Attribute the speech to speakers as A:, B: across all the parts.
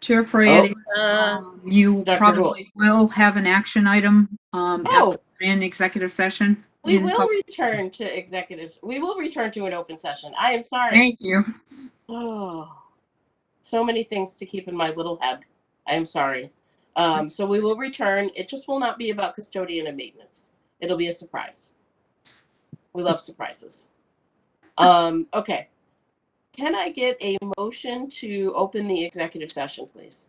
A: Chair Prayati,
B: Oh.
C: Uh,
A: um, you
B: Dr.
A: probably will have an action item um,
B: Oh,
A: after an executive session.
B: we
A: in
B: will
A: pub-
B: return to executives. We will return to an open session. I am sorry.
A: Thank you.
B: Oh, so many things to keep in my little head. I am sorry. Um, so we will return. It just will not be about custodian and maintenance. It'll be a surprise. We love surprises. Um, okay. Can I get a motion to open the executive session, please?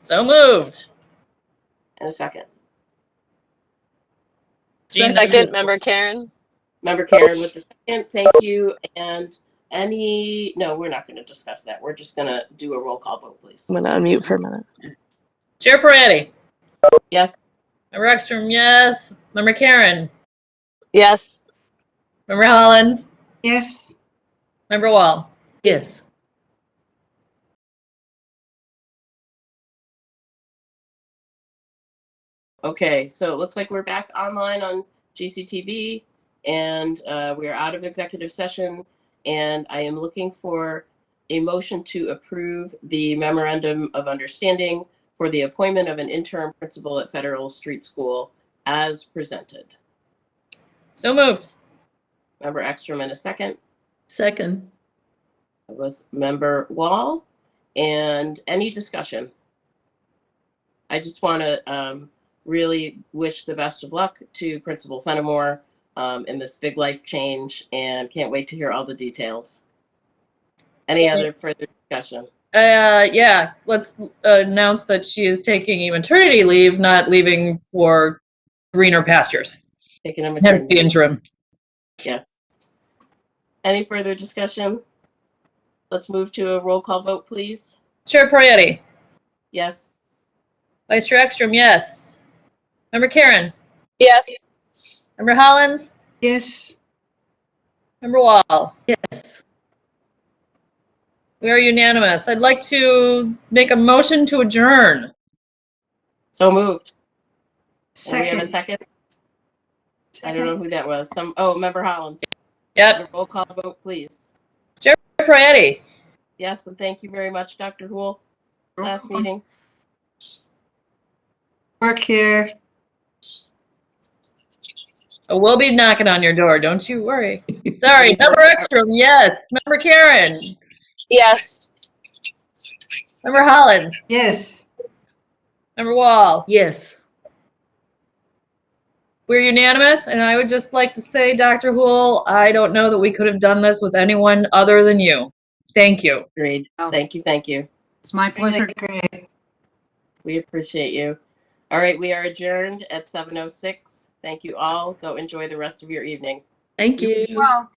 C: so moved.
B: In a second.
C: Gina.
D: Second, member Karen.
B: Member Karen with the second, thank you, and any, no, we're not gonna discuss that, we're just gonna do a roll call vote, please.
D: I'm gonna unmute for a minute.
C: Chair Peretti,
B: Yes,
C: Member Ekstrom, yes. Member Karen,
D: Yes,
C: Member Hollins,
E: Yes.
C: Member Wall. Yes.
B: okay, so it looks like we're back online on GCTV, and, uh, we are out of executive session, and I am looking for a motion to approve the memorandum of understanding for the appointment of an interim principal at Federal Street School as presented.
C: So moved.
B: Member Ekstrom in a second.
C: Second.
B: It was Member Wall. And any discussion? I just want to um, really wish the best of luck to Principal Fenimore um, in this big life change and can't wait to hear all the details. Any other further discussion?
C: Uh, yeah, let's uh, announce that she is taking a maternity leave, not leaving for greener pastures.
B: Taking a
C: Hence the
B: maternity-
C: interim.
B: Yes. Any further discussion? Let's move to a roll call vote, please.
C: Chair Peretti,
B: Yes.
C: Vice Chair Ekstrom, yes. Member Karen,
D: yes,
C: Member Hollins,
E: Yes.
C: Member Wall. Yes. We are unanimous. I'd like to make a motion to adjourn.
B: So moved. Do we have a
E: Second.
B: second? I don't know who that was. Some, oh, Member Hollins.
C: Yep.
B: Roll call vote, please.
C: Chair Peretti,
B: Yes, and thank you very much, Dr. Hool. Last meeting.
E: Work here.
C: we'll be knocking on your door. Don't you worry. Sorry. Member Ekstrom, yes. Member Karen,
D: yes.
C: Member Hollins.
E: Yes.
C: Member Wall,
F: Yes.
C: we're unanimous, and I would just like to say, Dr. Hool, I don't know that we could have done this with anyone other than you. Thank you.
B: Agreed.
A: Oh.
B: Thank you, thank you.
A: It's my pleasure.
E: Really Great.
B: We appreciate you. All right, we are oh adjourned at 7:06. Thank you all. Go enjoy the rest of your evening.
F: Thank you.
A: Well,